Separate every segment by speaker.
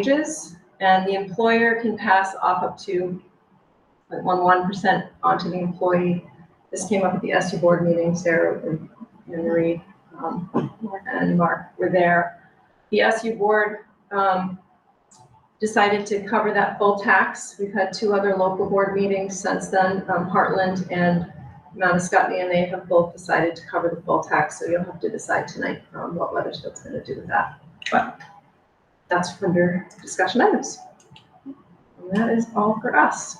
Speaker 1: wages, and the employer can pass off up to 0.11% onto the employee. This came up at the SU board meeting, Sarah and and Marie um, and Mark were there. The SU board um, decided to cover that full tax. We've had two other local board meetings since then, um, Heartland and Mount Scottney, and they have both decided to cover the full tax, so you'll have to decide tonight um, what Weathersfield's gonna do with that. But that's under discussion items. And that is all for us.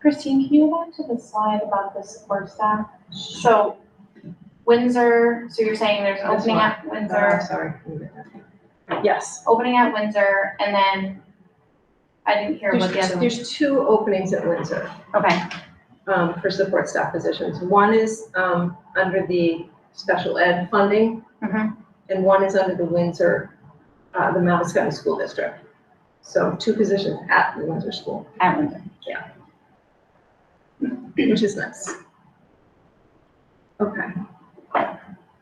Speaker 2: Christine, can you go back to the slide about the support staff? So Windsor, so you're saying there's an
Speaker 1: There's
Speaker 2: opening
Speaker 1: one.
Speaker 2: at
Speaker 1: Oh,
Speaker 2: Windsor,
Speaker 1: I'm sorry. Yes.
Speaker 2: opening at Windsor, and then I didn't hear what the
Speaker 1: There's,
Speaker 2: other one.
Speaker 1: there's two openings at Windsor
Speaker 2: Okay,
Speaker 1: um, for support staff positions. One is um, under the special ed funding,
Speaker 2: Mhm.
Speaker 1: and one is under the Windsor, uh, the Mount Scottney School District. So two positions at the Windsor School.
Speaker 2: at Windsor.
Speaker 1: which is nice. Okay.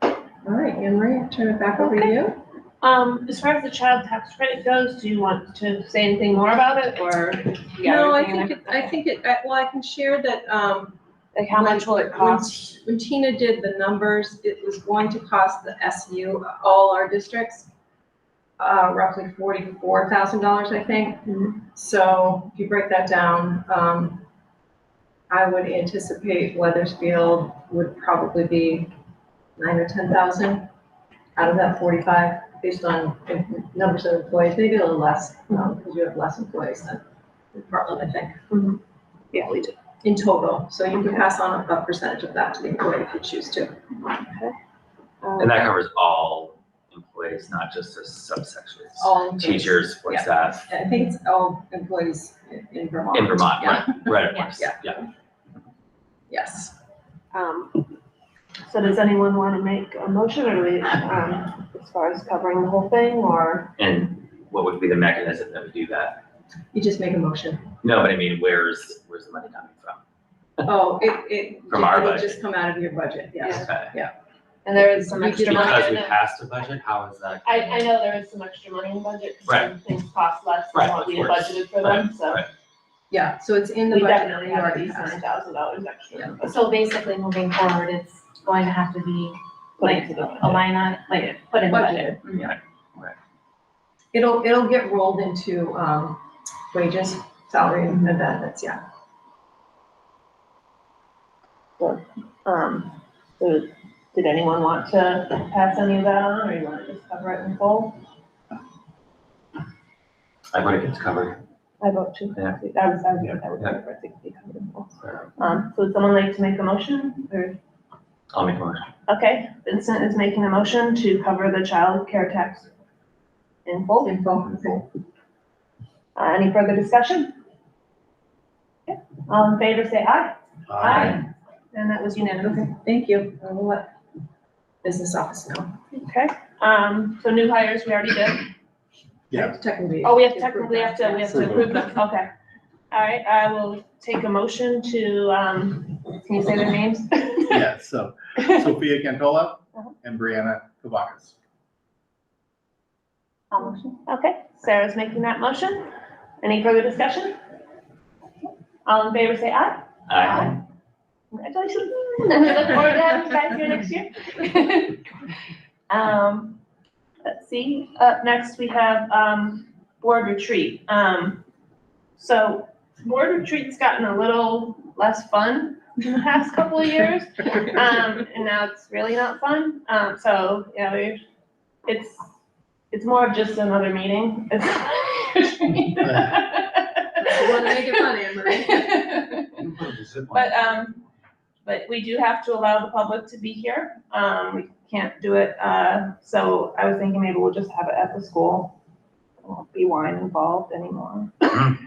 Speaker 1: All right, Anne Marie, I'll turn it back over to you.
Speaker 3: Um, as far as the child tax credit goes, do you want to say anything more about it or? you got
Speaker 1: No, I
Speaker 3: everything in
Speaker 1: think, it- I
Speaker 3: there?
Speaker 1: think it, I- well, I can share that, um.
Speaker 2: Like how
Speaker 1: when-
Speaker 2: much will it
Speaker 1: when-
Speaker 2: cost?
Speaker 1: When Tina did the numbers, it was going to cost the SU, all our districts, uh, roughly forty-four thousand dollars, I think.
Speaker 2: Mm-hmm.
Speaker 1: So if you break that down, um, I would anticipate Weathersfield would probably be nine or ten thousand out of that forty-five, based on em- numbers of employees, maybe a little less, because you have less employees than in Portland, I think.
Speaker 3: Mhm. Yeah,
Speaker 1: we do. In total, so you can pass on a percentage of that to the employee if you choose to. Um,
Speaker 4: And that covers all employees, not just the subsections.
Speaker 3: Oh,
Speaker 1: All employees.
Speaker 4: Teachers, support
Speaker 1: Yeah.
Speaker 4: staff
Speaker 1: I think it's all employees in- in Vermont.
Speaker 4: in Vermont,
Speaker 1: Yeah.
Speaker 4: right, right, of course,
Speaker 1: Yeah.
Speaker 4: yeah.
Speaker 1: Yes.
Speaker 3: Um, so does anyone want to make a motion or do we, um, as far as covering the whole thing or?
Speaker 4: And what would be the mechanism that would do that?
Speaker 1: You just make a motion.
Speaker 4: No, but I mean, where's, where's the money coming from?
Speaker 1: Oh, it, it.
Speaker 4: From our
Speaker 1: It
Speaker 4: budget.
Speaker 1: just come out of your budget, yes.
Speaker 4: Okay.
Speaker 3: And there is some
Speaker 1: We
Speaker 3: extra
Speaker 1: did not
Speaker 3: money
Speaker 4: Because
Speaker 3: in
Speaker 4: we
Speaker 3: it.
Speaker 4: passed a budget, how is that?
Speaker 3: I, I know there is some extra money in the budget because
Speaker 4: Right.
Speaker 3: some things cost less than
Speaker 4: Right,
Speaker 3: what
Speaker 4: of
Speaker 3: we had
Speaker 4: course.
Speaker 3: budgeted for them, so.
Speaker 4: Right.
Speaker 1: Yeah, so it's in the
Speaker 3: We
Speaker 1: budget. that
Speaker 3: definitely
Speaker 1: we
Speaker 3: have at
Speaker 1: already
Speaker 3: least
Speaker 1: passed.
Speaker 3: nine thousand dollars extra.
Speaker 5: So basically, moving forward, it's going to have to be
Speaker 3: put into the
Speaker 5: a
Speaker 3: budget.
Speaker 5: line on, like, put in the budget.
Speaker 1: Budget, yeah. It'll, it'll get rolled into, um, wages, salary and benefits, yeah.
Speaker 3: Um, so did anyone want to pass any of that on or you want to just cover it in full?
Speaker 4: I want to get covered.
Speaker 3: I vote to,
Speaker 4: Yeah.
Speaker 3: that was, I was, I would
Speaker 4: Yeah.
Speaker 3: prefer it to be covered in full. Um, so would someone like to make a motion or,
Speaker 4: I'll make a motion.
Speaker 3: okay, Vincent is making a motion to cover the child care tax in full.
Speaker 1: Info.
Speaker 3: Uh, any further discussion? Okay, All in favor, say aye. And that was unanimous.
Speaker 1: Okay, thank you. I will let business office know.
Speaker 3: Okay, um, so new hires, we already did.
Speaker 6: Yeah.
Speaker 1: Technically.
Speaker 3: Oh, we have technically have to, we have to
Speaker 6: Approve
Speaker 3: approve them, okay. All right, I will take a motion to, um, can you say their names?
Speaker 6: Yeah, so Sophia Cantola and Brianna Kavakas.
Speaker 3: I'll motion. Okay, Sarah's making that motion. Any further discussion? All in favor, say aye.
Speaker 4: Aye.
Speaker 3: Congratulations. We look forward to having you guys here next year. Um, let's see, up next we have, um, board retreat. Um, so board retreat's gotten a little less fun in the past couple of years. Um, and now it's really not fun. Um, so yeah, we, it's it's more of just another meeting.
Speaker 1: You
Speaker 3: It's
Speaker 1: wanna make it fun, Anne Marie?
Speaker 3: but um, but we do have to allow the public to be here. Um, we can't do it. Uh, so I was thinking maybe we'll just have it at the school. There won't be wine involved anymore. um,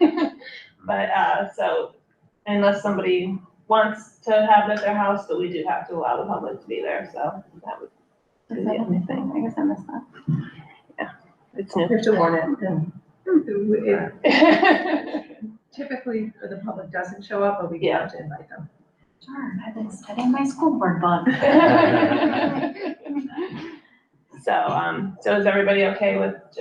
Speaker 3: but uh, so unless somebody wants to have it at their house, but we do have to allow the public to be there. So that would be the only thing.
Speaker 2: I guess I missed that.
Speaker 3: It's
Speaker 1: You have to warn it. and it
Speaker 3: new.
Speaker 1: Typically, the public doesn't show up, but we do have to invite them.
Speaker 2: Darn, I've been studying my school board book.
Speaker 3: So, um, so is everybody okay with just